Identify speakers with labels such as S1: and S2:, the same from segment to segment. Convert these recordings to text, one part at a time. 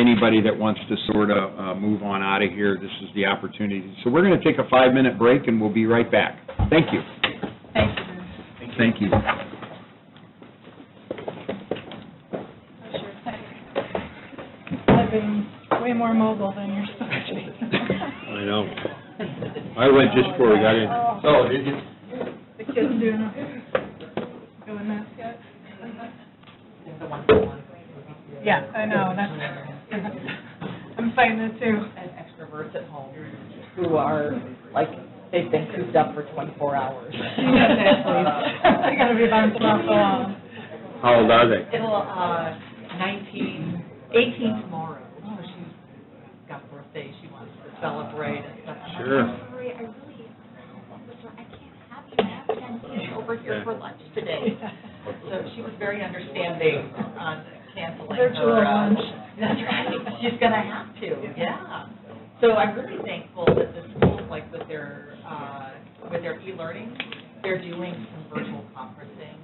S1: anybody that wants to sort of uh, move on out of here, this is the opportunity. So we're going to take a five-minute break, and we'll be right back. Thank you.
S2: Thank you.
S1: Thank you.
S2: That's your thing. I've been way more mobile than you're supposed to be.
S3: I know. I went just before we got in.
S2: Oh, did you? The kids doing, a- doing that yet? Yeah, I know, that's, I'm fighting it too.
S4: and extroverts at home who are, like, they've been cooped up for 24 hours.
S2: I gotta be bouncing off the wall.
S3: How old are they?
S4: It'll, uh, 19, 18 tomorrow, so she's got birthday she wants to celebrate and stuff.
S3: Sure.
S5: Sorry, I really, I can't have you have ten kids over here for lunch today.
S4: So she was very understanding on canceling her.
S2: Virtual
S4: uh,
S2: lunch.
S4: That's right, she's gonna have to, yeah. So I'm really thankful that the schools, like with their, uh, with their e-learning, they're doing some virtual conferencing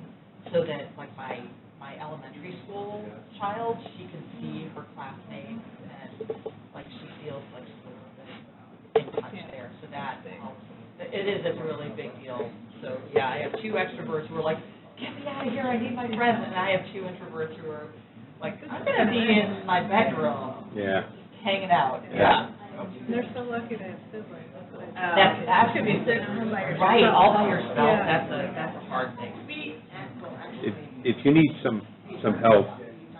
S4: so that like my, my elementary school child, she can see her classmates and like she feels like she's a little bit uh, in touch there. So that helps. It is a really big deal. So, yeah, I have two extroverts who are like, get me out of here, I need my friends. And I have two introverts who are like, I'm gonna be in my bedroom,
S3: Yeah.
S4: hanging out,
S3: Yeah.
S4: yeah.
S2: They're so lucky to have siblings. that's what I-
S4: That's, that could be, right, all by yourself,
S2: Yeah.
S4: that's a, that's a hard thing.
S3: If, if you need some, some help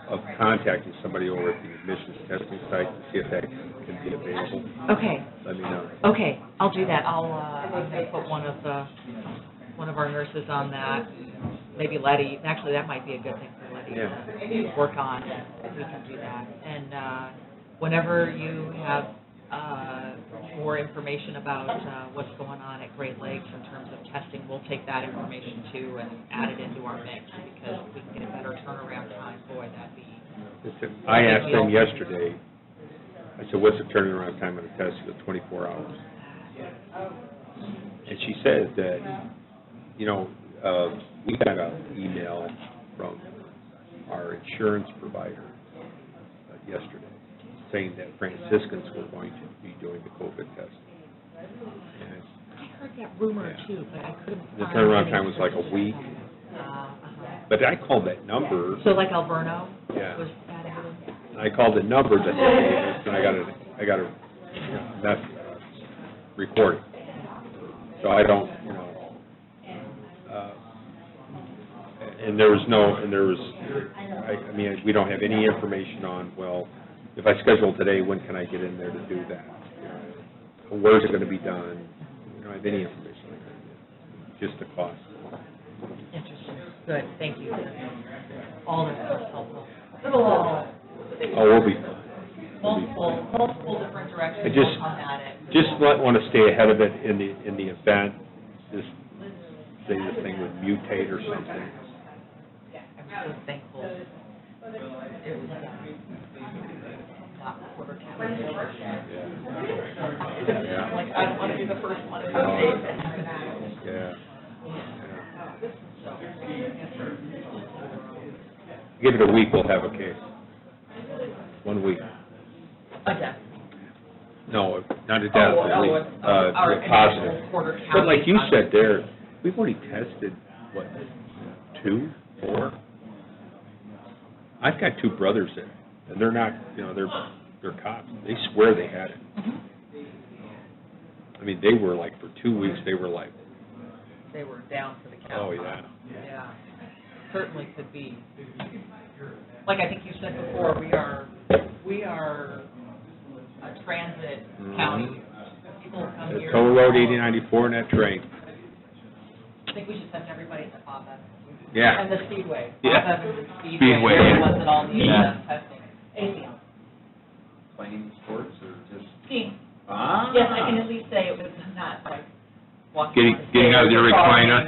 S3: of contacting somebody over at the admissions testing site to see if that can be available,
S4: Okay,
S3: let me know.
S4: okay, I'll do that, I'll, uh, I'm gonna put one of the, one of our nurses on that, maybe Letty, actually, that might be a good thing for Letty to
S3: Yeah.
S4: work on, we can do that. And, uh, whenever you have, uh, more information about, uh, what's going on at Great Lakes in terms of testing, we'll take that information too and add it into our mix, because if we can get a better turnaround time, boy, that'd be
S3: Listen, I asked them yesterday, I said, what's the turnaround time on a test? She goes, 24 hours. And she said that, you know, uh, we got an email from our insurance provider uh, yesterday saying that Franciscans were going to be doing the COVID test. And it's-
S4: I heard that rumor
S3: Yeah.
S4: too, but I couldn't.
S3: The
S4: find
S3: turnaround
S4: any
S3: time was like a week.
S4: Uh, uh-huh.
S3: But I called that number,
S4: So like Alverno?
S3: Yeah.
S4: Was that out?
S3: I called the number that they gave us, and I got a, I got a, that's recording. So I don't, you know, uh, and there was no, and there was, I, I mean, we don't have any information on, well, if I schedule today, when can I get in there to do that? You know, Where's it gonna be done? We don't have any information like that, just the cost.
S4: Interesting. Good, thank you. All of that was helpful. Little, uh,
S3: Oh, we'll be fine. We'll be fine.
S4: multiple, multiple different
S3: I
S4: directions
S3: just-
S4: will come at it.
S3: just might want to stay ahead of it in the, in the event, this, say this thing would mutate or something.
S4: I'm so thankful. It was, uh, not quarter calendar.
S3: Yeah.
S4: uh, Like, I don't want to be the first one to
S3: No.
S4: post it.
S3: Yeah. Give it a week, we'll have a case. One week.
S4: Okay.
S3: No, not a doubt,
S4: Oh,
S3: a
S4: oh,
S3: week,
S4: it's, uh,
S3: uh,
S4: our
S3: yeah, positive.
S4: initial quarter count.
S3: But like you said there, we've already tested, what, two, four? I've got two brothers there, and they're not, you know, they're, they're cops, they swear they had it. I mean, they were like, for two weeks, they were like,
S4: They were down for the count.
S3: oh, yeah.
S4: Yeah, certainly could be. Like I think you said before, we are, we are a transit county. People come
S3: Mm-hmm. The
S4: here.
S3: toll road eighty ninety-four and that train,
S4: I think we should send everybody to FABA.
S3: yeah.
S4: And the Speedway.
S3: Yeah.
S4: FABA and the Speedway.
S3: Speedway.
S4: They're the ones that all need
S3: Yeah.
S4: uh, testing. ACM.
S1: Playing sports or just?
S4: Skiing.
S1: Ah.
S4: Um, Yes, I can at least say it was not like walking.
S3: Getting-
S4: on the
S3: getting out of
S4: stairs
S3: your
S4: or
S3: recliner.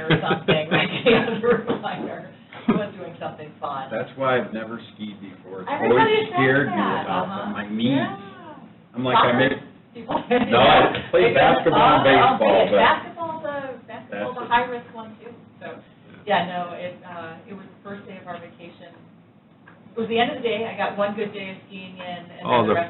S4: jogging Or something, like, getting out of the recliner. It was doing something fun.
S1: That's why I've never skied before. It's always
S4: Everybody says
S1: scared me
S4: that,
S1: about
S4: uh-huh.
S1: them, my knees.
S4: Yeah.
S1: I'm like, I make, No,
S4: No,
S1: I play basketball and baseball, but-
S4: Basketball's a, basketball's a
S1: That's-
S4: high-risk one too, so, yeah, no, it, uh, it was the first day of our vacation was the end of the day, I got one good day of skiing in, and
S1: Oh,
S3: Oh, the
S4: then the rest